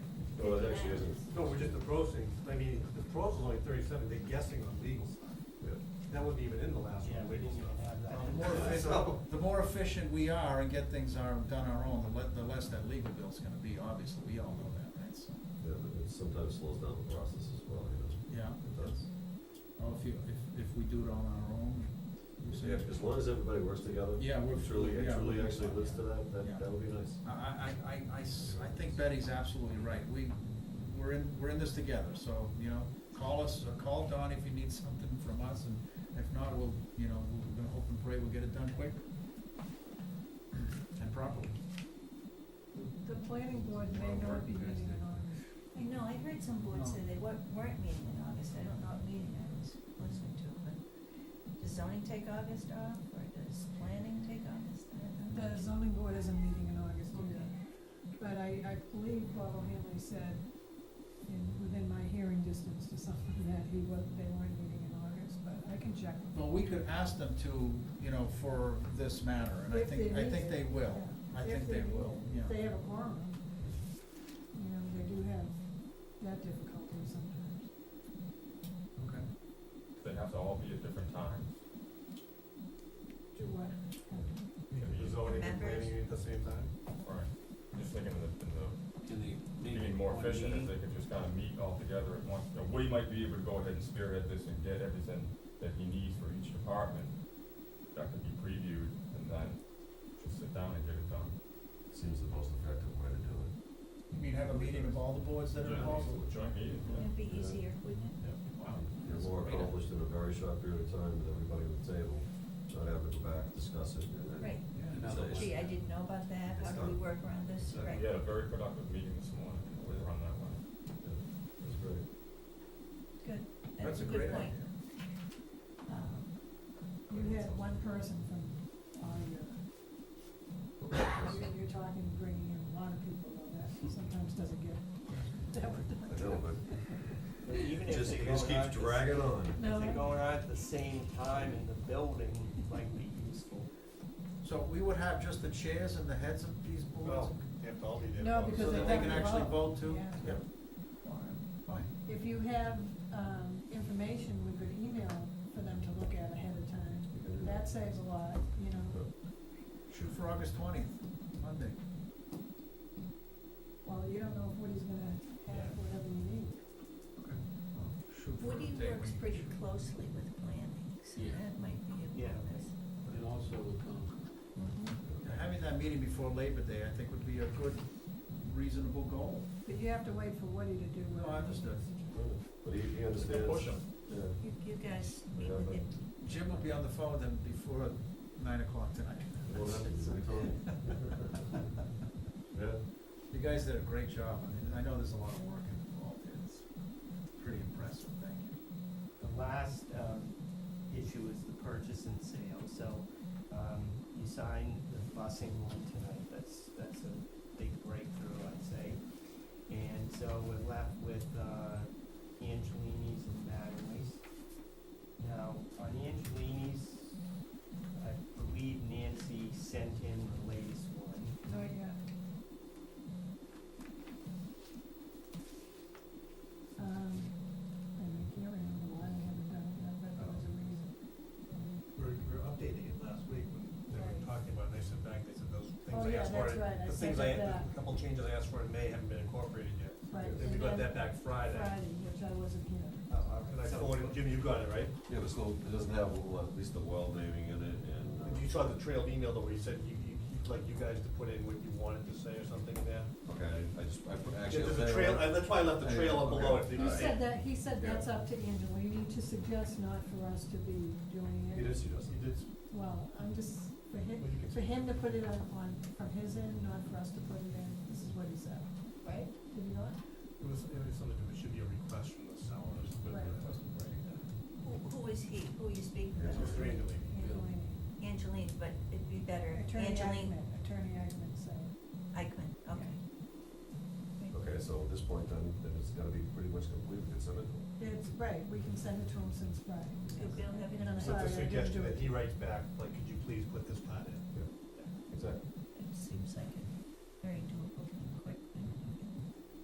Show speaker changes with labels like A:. A: she doesn't.
B: No, we're just approaching, I mean, the proposal's only thirty-seven, they're guessing on legals. That wasn't even in the last
C: Yeah,
B: one, Um,
C: we
B: legal
C: didn't even
B: stuff.
C: have that.
D: Well, The more efficient, the more efficient we are and get things are, done our own, the le- the less that legal bill's gonna be, obviously, we all know that, right, so,
A: Yeah, but it sometimes slows down the process as well, you know,
D: yeah.
A: it does.
D: Oh, if you, if, if we do it on our own, you say,
A: Yeah, as long as everybody works together.
D: Yeah, we're-
A: and Truly, and
D: yeah,
A: truly
D: we're-
A: actually lives to that, that,
D: Yeah.
A: that would be nice.
D: I, I, I- I, I s- I think Betty's absolutely right, we, we're in, we're in this together, so, you know, call us, or call Don if you need something from us, and if not, we'll, you know, we're gonna hope and pray we'll get it done quick. And properly.
E: The planning board
D: Well,
E: may not be
D: working
E: meeting in
D: Thursday.
E: August.
F: I know, I heard some boards
D: No.
F: say they weren't, weren't meeting in August, I don't know what meeting I was listening to, but does zoning take August off, or does planning take August? I don't know.
E: The zoning board isn't meeting in August either.
F: Okay.
E: But I, I believe Bob O'Hanley said in, within my hearing distance to something that he was, they weren't meeting in August, but I can check. with
D: Well,
E: him.
D: we could ask them to, you know, for this matter, and I
E: If
D: think,
E: they
D: I
E: need
D: think
E: it,
D: they will,
E: yeah.
D: I
E: If
D: think they
E: need
D: will,
E: it.
D: yeah.
E: If they have a quorum, you know, they do have that difficulty sometimes.
D: Okay.
G: They have to all be at different times.
E: Do what?
G: Can be
B: Zoning and
F: Members.
B: planning at the same time.
G: Right, just thinking of the, in the,
C: Can they make
G: being
C: it
G: more
C: one
G: efficient if
C: meeting?
G: they could just kind of meet all together at once. Now, Woody might be able to go ahead and spearhead this and get everything that he needs for each department. That could be previewed and then just sit down and get it done.
A: Seems the most effective way to do it.
D: You mean have a meeting of all the boards that are
G: Yeah,
D: involved?
G: Joint meeting, yeah.
F: It'd be easier, wouldn't it?
D: Wow.
A: You're
D: that's
A: more
D: great.
A: accomplished in a very short period of time with everybody at the table, not having to go back, discuss it, and then.
F: Right,
D: Yeah.
C: Another
A: It's-
C: one.
F: gee, I didn't know about that, how
A: It's
F: do we
A: done.
F: work around this,
A: Yeah,
F: right?
G: We had a very productive meeting this morning, we were on that one.
A: It's great.
F: That's a
D: great
F: good point.
D: idea.
F: Um,
E: You had one person from audio. I mean, you're talking, bringing in a lot of people on that, sometimes doesn't get that
A: I know,
C: But even
A: but
C: if
A: just,
C: they
A: it
C: go
A: just keeps
C: out, this-
A: dragging on.
C: If they're
E: No.
C: going out at the same time in the building, might be useful.
D: So we would have just the chairs and the heads of these boards?
B: they have to all be there.
E: No, because
D: So
E: they
D: that they
E: have
D: can
E: to
D: actually
E: vote.
D: vote too?
E: Yeah.
D: Yep. Fine, fine.
E: If you have, um, information, we could email for them to look at ahead of time,
A: You can do
E: that saves a lot, you know,
D: Shoot for August twentieth, Monday.
E: well, you don't know if Woody's gonna have whatever you need.
D: Well, Shoot for the
F: Woody
D: day
F: works
D: we-
F: pretty closely with planning, so
C: Yeah.
F: that might be a
C: Yeah.
F: bonus.
C: And also with Concom.
E: Mm-hmm.
D: Yeah, Having that meeting before Labor Day, I think would be a good, reasonable goal.
E: But you have to wait for Woody to do
D: No,
E: what.
D: I understood.
A: But he, he understands.
G: Push 'em.
A: Yeah.
F: You, you guys meet with
A: Yeah,
F: him,
D: Jim will be on the phone then before nine o'clock tonight.
A: Well, that's Yeah,
D: You guys did a great job. I mean, I know there's a lot of work involved. It's pretty impressive. Thank you.
C: The last, um, issue is the purchase and sale, so, um, you signed the busing one tonight, that's, that's a big breakthrough, I'd say. And so we're left with, uh, Angelini's and Mattingly's. Now, on Angelini's, I believe Nancy sent in the latest one.
E: Not yet. Um, I mean, I can't remember why they haven't done it yet, but there was a reason.
B: We're, we're updating it last week when they
E: Right.
B: were talking about it, they sent back, they said those
E: Oh,
B: things I
E: yeah,
B: asked for.
E: that's right, I
B: The things
E: said
B: I, the
E: that.
B: couple changes I asked for in May haven't been incorporated yet.
E: Right,
B: Then we
E: and
B: got
E: then
B: that back Friday. Uh,
E: Friday, which I wasn't here.
C: Oh, all
B: And I
C: right, so-
B: forwarded, Jim, you got it, right?
A: yeah, but still, it doesn't have well, at least the well naming in it and. uh,
B: You saw the trail email though, where you said you, you, you'd like you guys to put in what you wanted to say or something there?
A: Okay, I just, I put,
B: Yeah,
A: actually.
B: There's a trail, I- that's why I left the trail up below it.
E: He said that, he said
A: Yeah.
E: that's up to Angelini to suggest not for us to be doing
A: It
E: it.
A: is, he does.
B: You did,
E: Well, I'm just, for him,
B: Well, you can-
E: for him to put it on, on, from his end, not for us to put it in, this is what he said,
F: right?
E: did he not?
B: it was, it was something, it should be a request from the seller, or something,
E: Right.
B: but wasn't writing that.
F: Who, who is he, who are you speaking
A: Yeah,
B: It was
F: with?
B: three and a lady.
E: Angelini.
F: Angeline, but it'd be better,
E: Attorney
F: Angeline
E: Eichmann, Attorney Eichmann said.
F: Eichmann, okay.
A: Okay, so at this point then, then it's gotta be pretty much complete, we can send it to him.
E: It's right, we can send it to him since Friday.
F: Did Bill have it on that?
E: I'm
B: With
E: sorry, I
B: the
E: didn't do
B: suggestion that
E: it.
B: he writes back, like, could you please put this part in?
A: Exactly.
F: It seems like it.